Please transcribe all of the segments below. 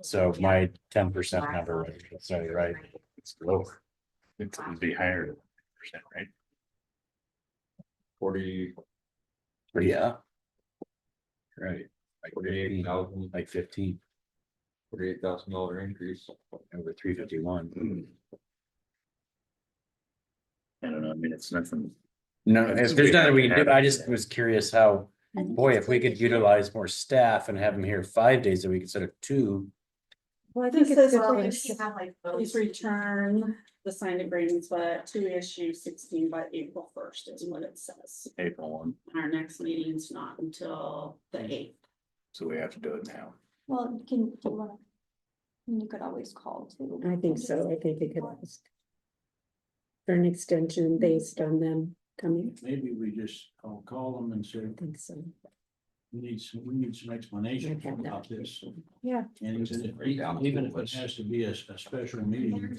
So my ten percent number, was- so you're right, It's lower. It could be higher than percent, right? Forty, yeah, right, like Forty. forty-eight thousand, like fifteen forty-eight thousand dollar increase. over three fifty one. I don't know, I mean, it's nothing. No, if there's nothing we can do, I just was curious how, boy, if we could utilize more staff and have them here five days a week instead of two. Well, I think This it says we're says, well, gonna if you s- have like please those- return the signed agreements, but to issue sixteen by April first is what it says. April one, Our next meeting's not until the eighth. so we have to do it now. Well, you can, do you wanna- you could always call too. I think so. I think it could ask. For an extension based on them coming, Maybe we just, I'll call them and say, I think so. we need some, we need some explanation about this. Yeah. And even if- even if it has to be a, a special meeting,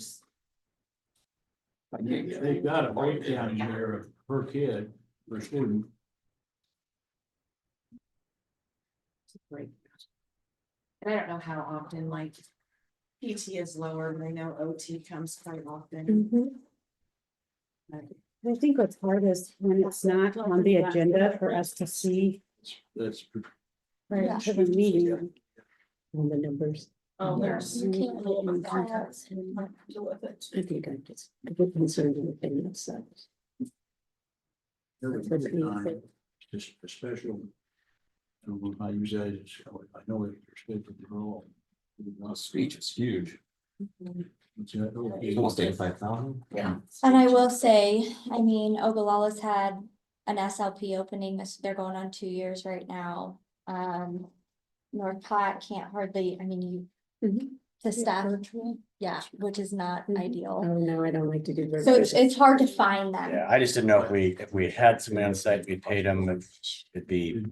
they've got a breakdown there of per kid, per student. And I don't know how often, like. PT is lower, and I know OT comes quite often. Mhm. I think what's hard is when it's not on the agenda for us to see That's, prior to the meeting. On the numbers, Oh, there's. You can't Mm, leave the mm, files and not deal with it. I think I'm just a bit concerned with the opinion of some. there was a time, just a special. I don't know if I use that, as- I know it's respected the role. speech is huge. It's a- okay. thousand. Yeah. And I will say, I mean, Ogallala's had an SLP opening, this- they're going on two years right now. Um, North Platte can't hardly, I mean, you, Mhm. Yeah, the staff, virtual. yeah, which is not Mhm. ideal. Oh, no, I don't like to do. So it's, virtual. it's hard to find them. Yeah, I just didn't know if we, if we had some insight, we paid them, it'd be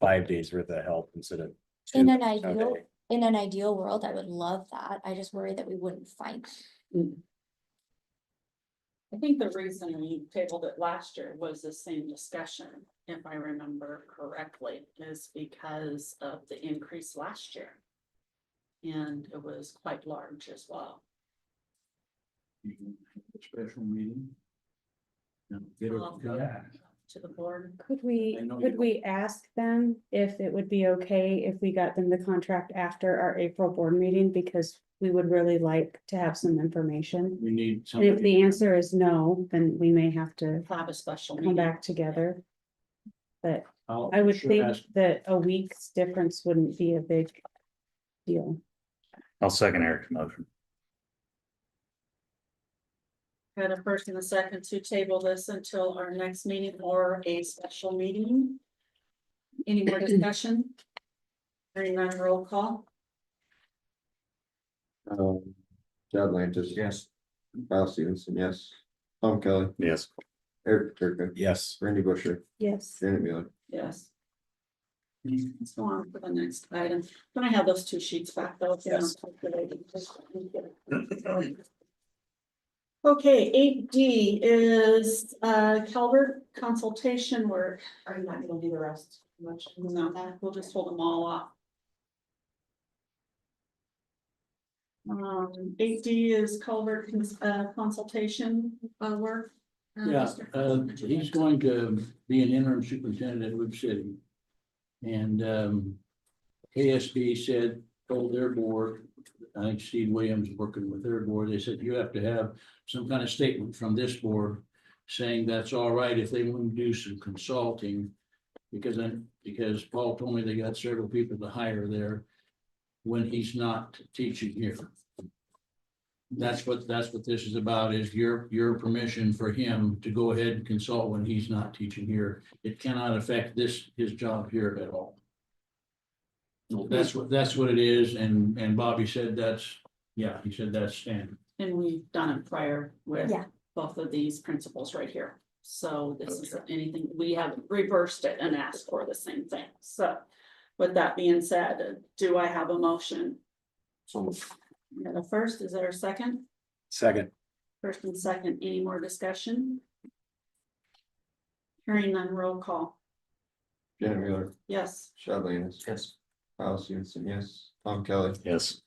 five days worth of help instead of. two. In an ideal, Okay. in an ideal world, I would love that. I just worry that we wouldn't find. them. I think the reason we tabled it last year was the same discussion, if I remember correctly, is because of the increase last year. And it was quite large as well. You can have a Special meeting. And get Well, it. To the board. Could we, I know you could don't. we ask them if it would be okay if we got them the contract after our April board meeting, because we would really like to have some information? We need And if something. the answer is no, then we may have to Have a special come meeting. back together. But I would think that a week's difference wouldn't be a big deal. I'll second Eric's motion. Got a first and a second to table this until our next meeting or a special meeting. Any more discussion? Hearing none, roll call. Um, Chad Lantis. Yes. Kyle Stevenson, yes. Tom Kelly, Yes. Eric Turka, Yes. Randy Busher, Yes. Janet Mueller. Yes. Let's go on for the next item. Can I have those two sheets back though? if you don't calculate it? Okay, eight D is uh Calvert consultation work. Are you not gonna do the rest? Much. No, we'll just hold them all off. Um, eight D is culvert cons- uh, consultation, uh, work. Uh, Yeah, Mr. uh, President, would you he's like- going to be an interim superintendent at Whip City. And, um, KSB said, told their board, I think Steve Williams working with their board, they said, you have to have some kind of statement from this board saying that's all right if they want to do some consulting. Because I, because Paul told me they got several people to hire there when he's not teaching here. That's what, that's what this is about, is your, your permission for him to go ahead and consult when he's not teaching here. It cannot affect this, his job here at all. That's what, that's what it is, and, and Bobby said that's, yeah, he said that's standard. And we've done it prior with Yeah. both of these principles right here. So this is anything, we have reversed it and asked for the same thing. So with that being said, do I have a motion? We got a first, is there a second? Second, First and second, any more discussion? Hearing none, roll call. Janet Mueller, Yes, Chad Lantis. Yes. Kyle Stevenson, yes. Tom Kelly, Yes.